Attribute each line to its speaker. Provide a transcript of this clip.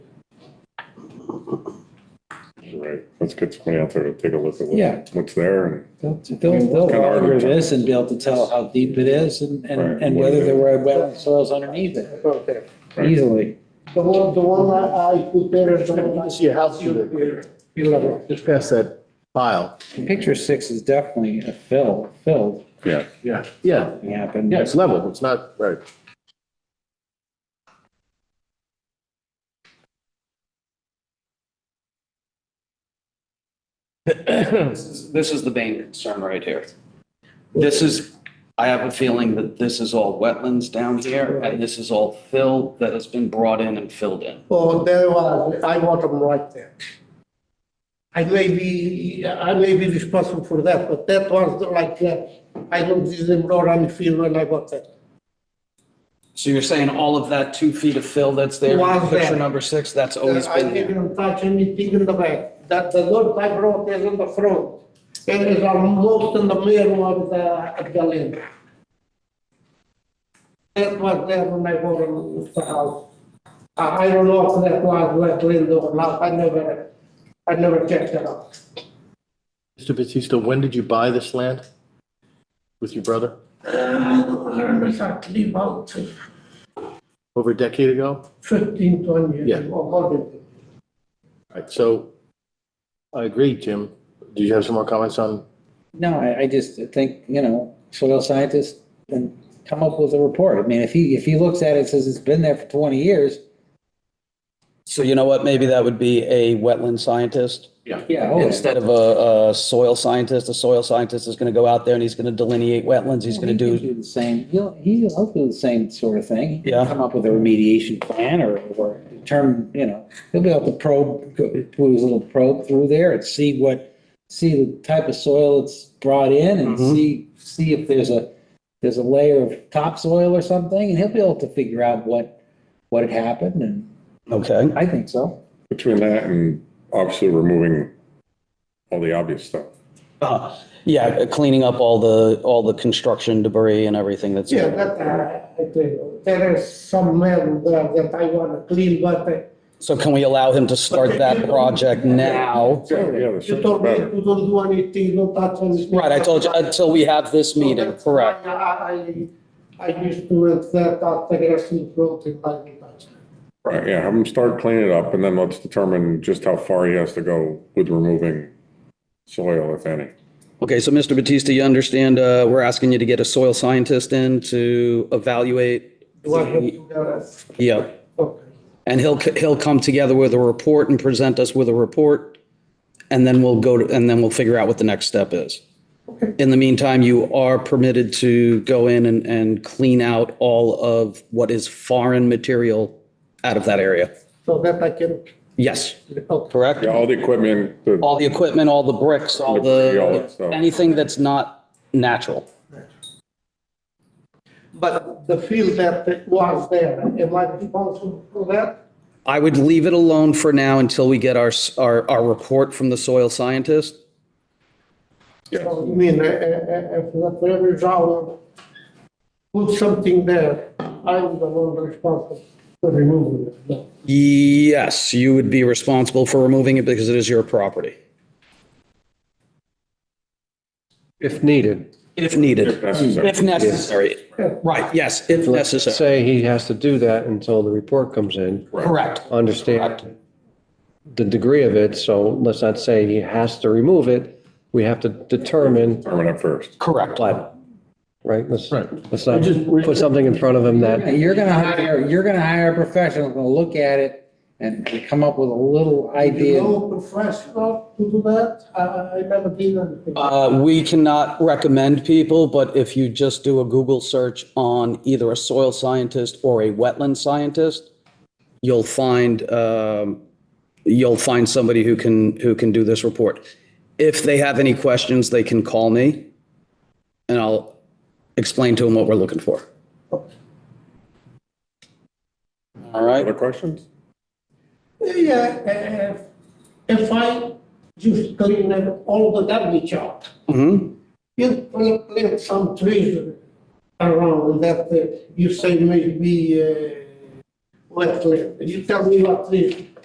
Speaker 1: Right, let's get somebody out there to take a look at
Speaker 2: Yeah.
Speaker 1: what- what's there and
Speaker 2: They'll, they'll, they'll
Speaker 1: Kinda hard to
Speaker 2: monitor
Speaker 1: tell.
Speaker 2: this and be able to tell how deep it is and,
Speaker 1: Right.
Speaker 2: and, and whether there were wetland soils underneath it
Speaker 3: About there.
Speaker 1: Right.
Speaker 2: easily.
Speaker 3: The one, the one that I prepared, the one I see a house with it.
Speaker 4: Just pass that file.
Speaker 2: Picture six is definitely a fill, filled,
Speaker 1: yeah,
Speaker 4: Yeah. Yeah,
Speaker 2: it happened.
Speaker 4: yeah, it's level, it's not, right.
Speaker 5: This is- this is the main concern right here. This is, I have a feeling that this is all wetlands down here, and this is all fill that has been brought in and filled in.
Speaker 3: Oh, there was, I want them right there. I may be, I may be responsible for that, but that was like that. I looked at them road on the field when I got that.
Speaker 5: So you're saying all of that two feet of fill that's there,
Speaker 3: Was
Speaker 5: in picture
Speaker 3: there.
Speaker 5: number six, that's always Oh, been
Speaker 3: I
Speaker 5: there?
Speaker 3: didn't touch anything in the back. That, the road I brought is in the front. It is almost in the middle of the, of the lane. That was there when I bought the house. I, I don't know if that was wetland or not, I never, I never checked it out.
Speaker 4: Mr. Batista, when did you buy this land? With your brother?
Speaker 3: Uh, Exactly about
Speaker 4: Over a decade ago?
Speaker 3: fifteen, twenty years
Speaker 4: Yeah.
Speaker 3: ago, more than
Speaker 4: All right, so I agree, Jim. Do you have some more comments on?
Speaker 2: No, I, I just think, you know, soil scientists and come up with a report. I mean, if he, if he looks at it, and says it's been there for twenty years,
Speaker 5: So you know what, maybe that would be a wetland scientist?
Speaker 2: yeah, oh,
Speaker 5: Instead of a, a soil scientist, a soil scientist is gonna go out there and he's gonna delineate wetlands, he's gonna
Speaker 2: he can
Speaker 5: do,
Speaker 2: The same, he'll, he'll he'll do the same sort of thing. He can
Speaker 5: Yeah.
Speaker 2: Come up with a remediation plan or, or determine, you know, he'll be able to probe, go through his little probe through there and see what, see the type of soil it's brought in and
Speaker 5: Mhm.
Speaker 2: see, see if there's a, there's a layer of topsoil or something, and he'll be able to figure out what, what had happened, and
Speaker 5: okay?
Speaker 2: I think so.
Speaker 1: between that and obviously removing all the obvious stuff.
Speaker 5: Uh, Yeah, cleaning up all the, all the construction debris and everything that's.
Speaker 3: Yeah, that, uh, I tell you, there is some man there that I wanna clean, but uh,
Speaker 5: So can we allow him to start that project now?
Speaker 1: Yeah, yeah, the
Speaker 3: you
Speaker 1: sooner the
Speaker 3: told me
Speaker 1: better.
Speaker 3: you don't do anything, don't touch anything.
Speaker 5: Right, I told you, until we have this
Speaker 3: So
Speaker 5: meeting,
Speaker 3: that's
Speaker 5: correct?
Speaker 3: why I, I- I used to work that, uh, aggressive road in my life.
Speaker 1: Right, yeah, have him start cleaning it up and then let's determine just how far he has to go with removing soil, if any.
Speaker 5: Okay, so Mr. Batista, you understand, uh, we're asking you to get a soil scientist in to evaluate?
Speaker 3: Do I have to get a,
Speaker 5: Yeah,
Speaker 3: okay,
Speaker 5: and he'll, he'll come together with a report and present us with a report. And then we'll go to, and then we'll figure out what the next step is.
Speaker 3: okay,
Speaker 5: In the meantime, you are permitted to go in and, and clean out all of what is foreign material out of that area.
Speaker 3: so that I can,
Speaker 5: Yes,
Speaker 3: okay,
Speaker 5: correct?
Speaker 1: Yeah, all the equipment, the-
Speaker 5: All the equipment, all the bricks, all
Speaker 1: All
Speaker 5: the,
Speaker 1: that stuff.
Speaker 5: anything that's not natural.
Speaker 3: but the field that was there, am I responsible for that?
Speaker 5: I would leave it alone for now until we get our, s- our, our report from the soil scientist.
Speaker 1: Yeah.
Speaker 3: So, I mean, uh, uh, uh, if the every hour put something there, I'm the one responsible for removing it. No.
Speaker 5: Yes, you would be responsible for removing it because it is your property,
Speaker 6: If needed.
Speaker 5: if needed,
Speaker 1: if necessary.
Speaker 5: if necessary. Right, yes, if necessary.
Speaker 6: Say he has to do that until the report comes in.
Speaker 5: Correct.
Speaker 6: Understand the degree of it, so let's not say he has to remove it. We have to determine,
Speaker 1: Determine it first.
Speaker 5: Correct.
Speaker 6: but, right? Let's, let's not put something in front of him
Speaker 2: Yeah,
Speaker 6: that,
Speaker 2: You're gonna hire, you're gonna hire a professional, gonna look at it and come up with a little idea.
Speaker 3: You know, professional to do that, I, I never did anything.
Speaker 5: Uh, we cannot recommend people, but if you just do a Google search on either a soil scientist or a wetland scientist, you'll find, um, you'll find somebody who can, who can do this report. If they have any questions, they can call me and I'll explain to them what we're looking for. All right?
Speaker 1: Other questions?
Speaker 3: Yeah, uh, if I just clean up all the garbage out,
Speaker 5: Mhm.
Speaker 3: you plant, plant some trees around that uh, you say maybe uh, wetland, you tell me what trees